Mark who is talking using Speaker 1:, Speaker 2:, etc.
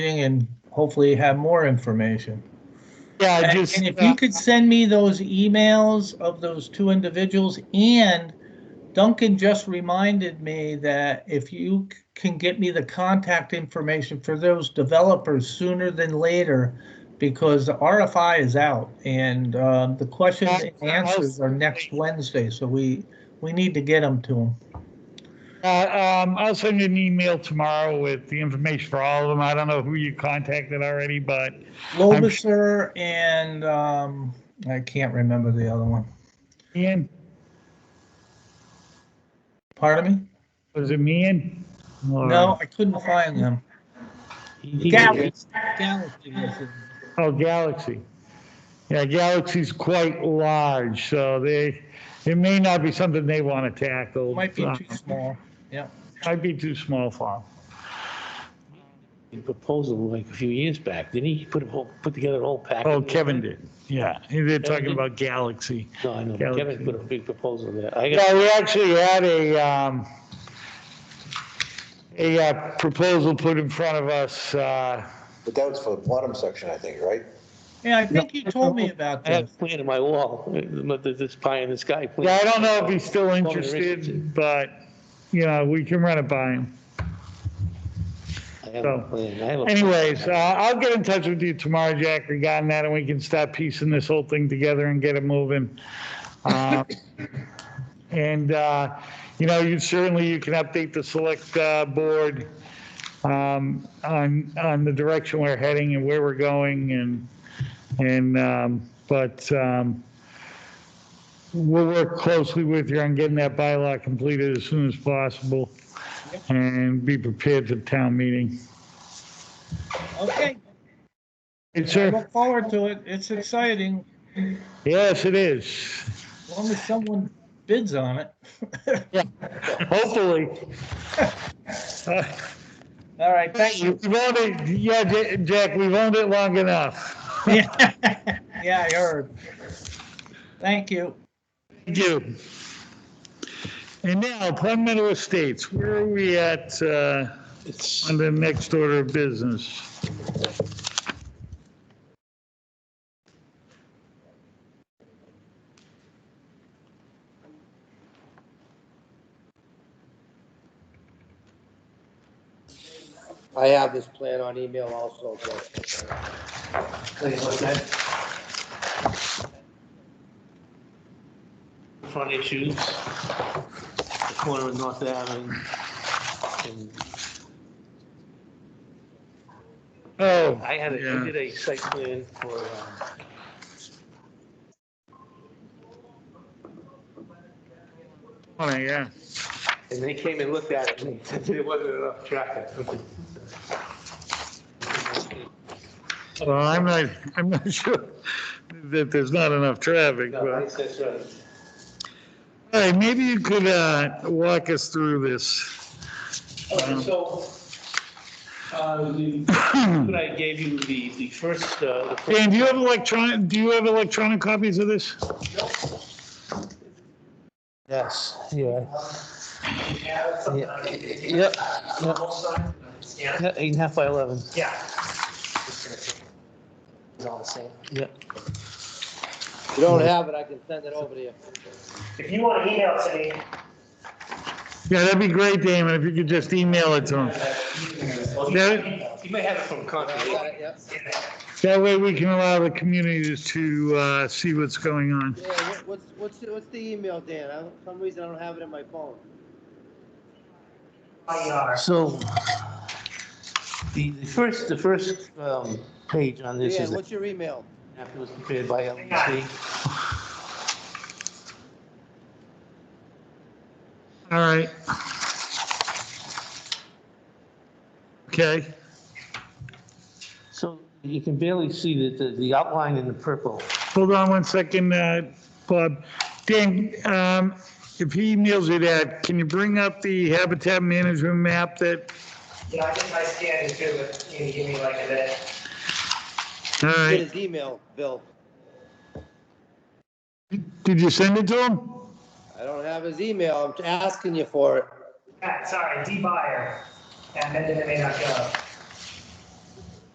Speaker 1: meeting and hopefully have more information.
Speaker 2: Yeah, I
Speaker 1: And
Speaker 2: just, uh,
Speaker 1: and if you could send me those emails of those two individuals, and Duncan just reminded me that if you c- can get me the contact information for those developers sooner than later, because the RFI is out and um, the questions and answers are next Wednesday, so we, we need to get them to them.
Speaker 2: uh, um, I'll send you an email tomorrow with the information for all of them. I don't know who you contacted already, but
Speaker 1: Lobiser and um, I can't remember the other one.
Speaker 2: Ian,
Speaker 1: Pardon me?
Speaker 2: was it me Ian? Or-
Speaker 1: No, I couldn't find them. Galaxy. Galaxy was it.
Speaker 2: Oh, Galaxy. Yeah, Galaxy's quite large, so they, it may not be something they want to tackle.
Speaker 1: Might be
Speaker 2: Uh,
Speaker 1: too small. Yeah.
Speaker 2: Might be too small for 'em.
Speaker 3: a proposal like a few years back, didn't he? He Put a whole, put together a whole package.
Speaker 2: Oh, Kevin did, yeah. They're talking
Speaker 3: did?
Speaker 2: about Galaxy.
Speaker 3: No, I know,
Speaker 2: Yeah.
Speaker 3: Kevin put a big proposal there. I got,
Speaker 2: Yeah, we actually had a, um, a uh, proposal put in front of us, uh,
Speaker 4: But that was for the bottom section, I think, right?
Speaker 1: Yeah, I think you told me about
Speaker 3: I have
Speaker 1: this.
Speaker 3: a plan in my wall, but there's this pie in the sky plan.
Speaker 2: yeah, I don't know if he's still
Speaker 3: Well, there is-
Speaker 2: interested, but, you know, we can run it by him.
Speaker 3: I have a
Speaker 2: so.
Speaker 3: plan. I have a. plan.
Speaker 2: Anyways, uh, I'll get in touch with you tomorrow, Jack, regarding that, and we can start piecing this whole thing together and get it moving. Uh, And, uh, you know, you certainly, you can update the select uh, board um, on, on the direction we're heading and where we're going and, and, um, but um, we'll work closely with you on getting that bylaw completed as soon as possible and be prepared for town meeting.
Speaker 1: Okay,
Speaker 2: Hey,
Speaker 1: I
Speaker 2: sir.
Speaker 1: look forward to it. It's exciting.
Speaker 2: Yes, it is.
Speaker 1: As long as someone bids on it.
Speaker 2: Hopefully. Uh,
Speaker 1: All right, thank you.
Speaker 2: We've owned it, yeah, Ja- Jack, we've owned it long enough.
Speaker 1: Yeah, Yeah, I heard. Thank you.
Speaker 2: Thank you. And now, Palmetto Estates, where are we at uh,
Speaker 3: It's-
Speaker 2: on the next order of business?
Speaker 5: I have this plan on email also, so. Please look at it.
Speaker 3: Front issues, the corner of North Avenue. and
Speaker 2: Oh.
Speaker 3: I had, a I
Speaker 2: yeah.
Speaker 3: did a site plan for, um,
Speaker 2: Oh, yeah.
Speaker 3: and they came and looked at it and said there wasn't enough traffic.
Speaker 2: Well, I'm not, I'm not sure that there's not enough traffic,
Speaker 3: No,
Speaker 2: but,
Speaker 3: that's- that's right.
Speaker 2: all right, maybe you could uh, walk us through this.
Speaker 3: Okay, so, uh, the, what I gave you, the, the first, uh, the first-
Speaker 2: Dan, do you have electronic, do you have electronic copies of this?
Speaker 3: Yes, yeah. Yeah, Yep. Yeah, Eight and a half by 11. Yeah. It's all the same. Yeah.
Speaker 5: If you don't have it, I can send it over to you.
Speaker 6: If you want to email it to me,
Speaker 2: Yeah, that'd be great, Damon, if you could just email it to him. That,
Speaker 3: You may have it from
Speaker 5: I
Speaker 3: Concord.
Speaker 5: got it, yep.
Speaker 2: that way we can allow the communities to, uh, see what's going on.
Speaker 5: Yeah, what- what's, what's, the- what's the email, Dan? I don't- For some reason, I don't have it in my phone.
Speaker 6: IR.
Speaker 3: So the, the first, the first um, page on this
Speaker 5: Dan,
Speaker 3: is
Speaker 5: what's your email?
Speaker 3: after it was prepared by LEC.
Speaker 2: All right. Okay,
Speaker 3: So you can barely see that the, the outline in the purple.
Speaker 2: hold on one second, uh, Bob. Dan, um, if he emails you that, can you bring up the habitat management map that,
Speaker 6: Yeah, I think I scanned it too, but you can give me like a minute.
Speaker 2: all
Speaker 5: Get
Speaker 2: right,
Speaker 5: his email, Bill.
Speaker 2: did you send it to him?
Speaker 5: I don't have his
Speaker 6: uh,
Speaker 5: email. I'm asking you for it.
Speaker 6: Ah, Sorry, D buyer at mendon.gov.